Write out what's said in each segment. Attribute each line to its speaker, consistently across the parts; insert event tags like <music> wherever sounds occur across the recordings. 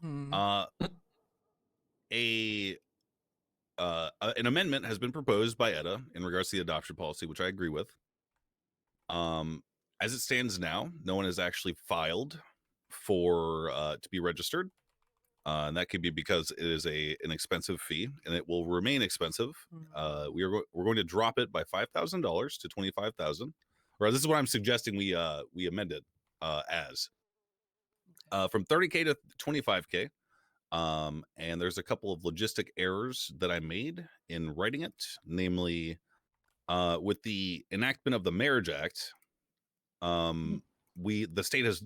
Speaker 1: Hmm.
Speaker 2: Uh, a uh, a- an amendment has been proposed by ETA in regards to the adoption policy, which I agree with. Um, as it stands now, no one has actually filed for uh, to be registered, uh, and that could be because it is a an expensive fee, and it will remain expensive.
Speaker 1: Hmm.
Speaker 2: Uh, we are go- we're going to drop it by five thousand dollars to twenty five thousand, or this is what I'm suggesting we uh, we amend it uh, as uh, from thirty k to twenty five k um, and there's a couple of logistic errors that I made in writing it, namely uh, with the enactment of the Marriage Act. Um, we the state has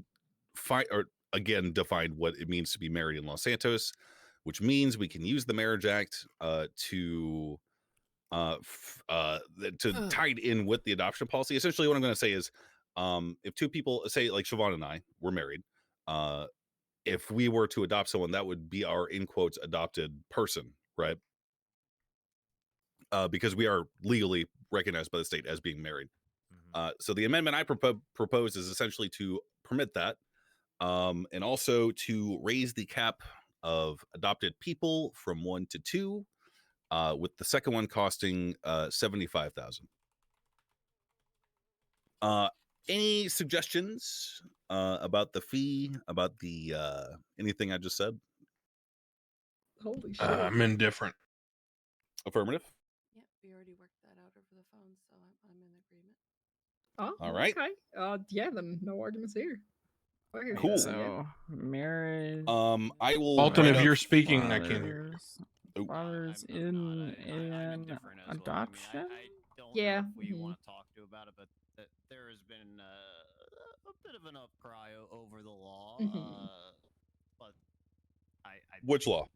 Speaker 2: fi- or again defined what it means to be married in Los Santos, which means we can use the Marriage Act uh, to uh, f- uh, th- to
Speaker 3: Ugh.
Speaker 2: tie it in with the adoption policy. Essentially, what I'm going to say is, um, if two people say like Siobhan and I, we're married. Uh, if we were to adopt someone, that would be our in quotes adopted person, right? Uh, because we are legally recognized by the state as being married. Uh, so the amendment I propo- propose is essentially to permit that, um, and also to raise the cap of adopted people from one to two, uh, with the second one costing uh, seventy five thousand. Uh, any suggestions uh, about the fee? About the uh, anything I just said?
Speaker 4: Holy shit.
Speaker 5: Uh, I'm indifferent.
Speaker 2: Affirmative.
Speaker 6: Yep, we already worked that out over the phone, so I'm, I'm in agreement.
Speaker 4: oh,
Speaker 2: all right.
Speaker 4: Okay. Uh, yeah, then no arguments here. Okay.
Speaker 2: Cool.
Speaker 3: So marriage.
Speaker 2: Um, I will.
Speaker 5: Alton,
Speaker 2: write
Speaker 5: if
Speaker 2: up-
Speaker 5: you're speaking, I can't hear.
Speaker 3: fathers-
Speaker 2: Oh.
Speaker 3: Fathers
Speaker 1: I'm- I'm
Speaker 3: in
Speaker 1: not- I- I'm
Speaker 3: in
Speaker 1: indifferent as well. I mean, I-
Speaker 3: adoption.
Speaker 1: I don't
Speaker 4: Yeah,
Speaker 1: know if we
Speaker 4: mhm.
Speaker 1: want to talk to about it, but th- there has been uh, a bit of an upcry o- over the law.
Speaker 4: Mhm.
Speaker 1: Uh, but I, I
Speaker 2: Which
Speaker 1: think
Speaker 2: law?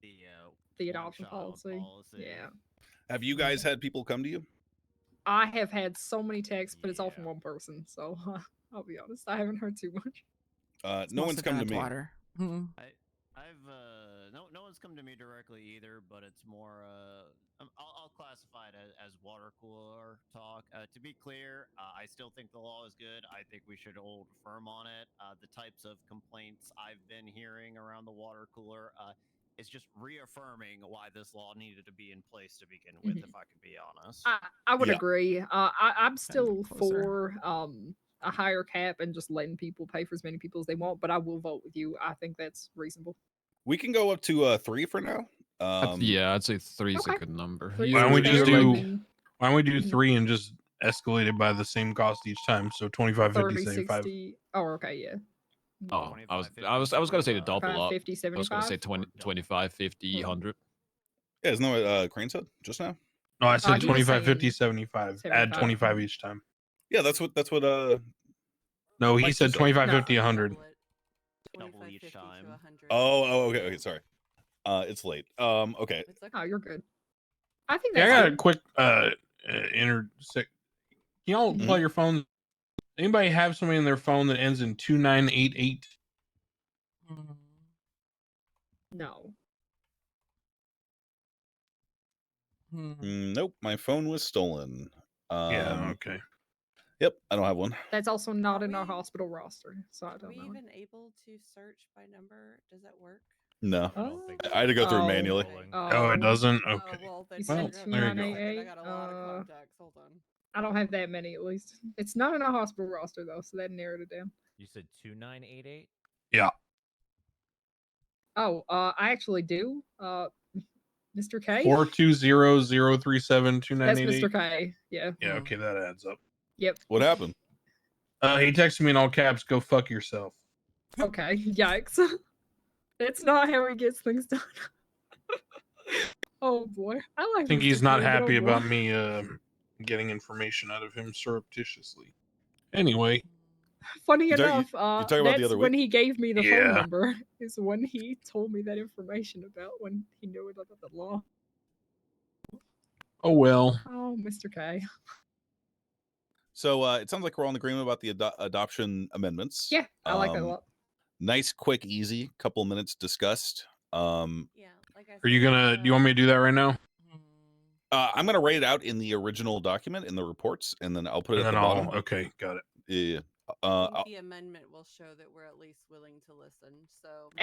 Speaker 1: The uh,
Speaker 4: The
Speaker 1: one
Speaker 4: adoption
Speaker 1: child
Speaker 4: policy. Yeah.
Speaker 2: Have you guys had people come to you?
Speaker 4: I have had so many texts, but it's all from
Speaker 1: Yeah.
Speaker 4: one person. So <laughs> I'll be honest, I haven't heard too much.
Speaker 2: Uh,
Speaker 3: It's
Speaker 2: no one's
Speaker 3: mostly
Speaker 2: come to
Speaker 3: bad
Speaker 2: me.
Speaker 3: Water. Hmm.
Speaker 1: I've uh, no no one's come to me directly either, but it's more uh, um, I'll, I'll classify it as, as water cooler talk. Uh, to be clear, uh, I still think the law is good. I think we should hold firm on it. Uh, the types of complaints I've been hearing around the water cooler uh, is just reaffirming why this law needed to be in place to begin with.
Speaker 4: Mhm.
Speaker 1: If I can be honest,
Speaker 4: I, I would
Speaker 2: Yeah.
Speaker 4: agree. Uh, I, I'm still
Speaker 3: closer.
Speaker 4: for um, a higher cap and just letting people pay for as many people as they want, but I will vote with you. I think that's reasonable.
Speaker 2: We can go up to uh, three for now.
Speaker 7: I'd-
Speaker 2: Um,
Speaker 7: yeah, I'd say three is
Speaker 4: okay.
Speaker 7: a good number.
Speaker 4: Three
Speaker 5: Why don't we
Speaker 4: seems
Speaker 5: just
Speaker 4: better
Speaker 5: do-
Speaker 4: than
Speaker 5: Why don't we do
Speaker 4: Mhm.
Speaker 5: three and just escalate it by the same cost each time? So 25,
Speaker 4: 30,
Speaker 5: 50, 75.
Speaker 4: 60. Oh, okay, yeah.
Speaker 7: Oh, I was,
Speaker 1: 25,
Speaker 7: I was, I was gonna say to
Speaker 1: 50,
Speaker 7: double
Speaker 4: Five,
Speaker 7: up.
Speaker 4: 50,
Speaker 7: I was gonna
Speaker 4: 75.
Speaker 7: say 20, 25, 50,
Speaker 4: Mhm.
Speaker 7: 100.
Speaker 2: Yeah, isn't that what uh, Crane said just now?
Speaker 5: No, I
Speaker 4: he
Speaker 5: said
Speaker 4: was
Speaker 5: 25, 50,
Speaker 4: saying
Speaker 5: 75. Add
Speaker 4: 75.
Speaker 5: 25 each time.
Speaker 2: Yeah, that's what that's what. Uh,
Speaker 5: No, he
Speaker 2: Mike
Speaker 5: said
Speaker 2: just said-
Speaker 5: 25,
Speaker 4: No.
Speaker 5: 50, 100.
Speaker 1: Double each time.
Speaker 2: oh, oh, okay, okay, sorry. Uh, it's late. Um, okay.
Speaker 4: Oh, you're good. I think
Speaker 5: Yeah, I
Speaker 4: that's
Speaker 5: got a
Speaker 4: good.
Speaker 5: quick uh, uh inter. sec- Can y'all
Speaker 4: Mhm.
Speaker 5: play your phone? Anybody have somebody in their phone that ends in 2988?
Speaker 1: Hmm.
Speaker 4: No.
Speaker 3: Hmm.
Speaker 2: Mm, nope, my phone was stolen. Um,
Speaker 5: yeah, okay.
Speaker 2: Yep, I don't have one.
Speaker 4: That's also not in our
Speaker 6: We-
Speaker 4: hospital roster, so I
Speaker 6: Are
Speaker 4: don't
Speaker 6: we
Speaker 4: know.
Speaker 6: even able to search by number? Does that work?
Speaker 2: No,
Speaker 1: I don't think
Speaker 4: Uh,
Speaker 1: so.
Speaker 2: I had to go through
Speaker 4: Oh.
Speaker 2: manually.
Speaker 5: Oh,
Speaker 4: Oh.
Speaker 5: it doesn't?
Speaker 6: Oh,
Speaker 5: Okay.
Speaker 6: well, then
Speaker 4: You
Speaker 5: Well, there
Speaker 6: figure out how
Speaker 5: you go.
Speaker 6: to do it.
Speaker 4: 2988,
Speaker 6: I got a lot
Speaker 4: uh,
Speaker 6: of contacts. Hold on.
Speaker 4: I don't have that many, at least. It's not in our hospital roster, though, so that narrowed it down.
Speaker 8: You said two nine eight eight.
Speaker 4: Oh, uh, I actually do. Uh, Mr. K.
Speaker 5: Four two zero zero three seven two nine
Speaker 4: That's
Speaker 5: eight
Speaker 4: Mr.
Speaker 5: eight.
Speaker 4: K. Yeah.
Speaker 5: Yeah, okay, that adds up.
Speaker 4: Yep.
Speaker 2: What happened?
Speaker 5: Uh, he texted me in all caps, go fuck yourself.
Speaker 4: Okay. <laughs> Yikes. That's not how he gets things done. <laughs> oh boy, I like.
Speaker 5: I think
Speaker 4: Mr.
Speaker 5: he's not
Speaker 4: K, but
Speaker 5: happy
Speaker 4: oh, boy.
Speaker 5: about me uh, getting information out of him surreptitiously. Anyway,
Speaker 4: Funny
Speaker 2: You talk- you-
Speaker 4: enough, uh,
Speaker 2: talking about the
Speaker 4: that's
Speaker 2: other
Speaker 4: when he gave me the
Speaker 5: Yeah.
Speaker 4: phone number. Is when he told me that information about when he knew it about the law.
Speaker 5: oh well.
Speaker 4: Oh, Mr. K.
Speaker 2: So uh, it sounds like we're all in agreement about the ado- adoption amendments.
Speaker 4: Yeah, I like that a
Speaker 2: Um,
Speaker 4: lot.
Speaker 2: Nice, quick, easy. Couple minutes discussed. Um,
Speaker 6: Yeah, like I said.
Speaker 5: Are you gonna? Do you want me to do that right now?
Speaker 1: Hmm.
Speaker 2: uh, I'm gonna write it out in the original document in the reports, and then I'll put it
Speaker 5: And
Speaker 2: at
Speaker 5: then
Speaker 2: the bottom.
Speaker 5: I'll. Okay, got it.
Speaker 2: Yeah. yeah. Uh,
Speaker 6: I
Speaker 2: I'll-
Speaker 6: think the amendment will show that we're at least willing to listen. So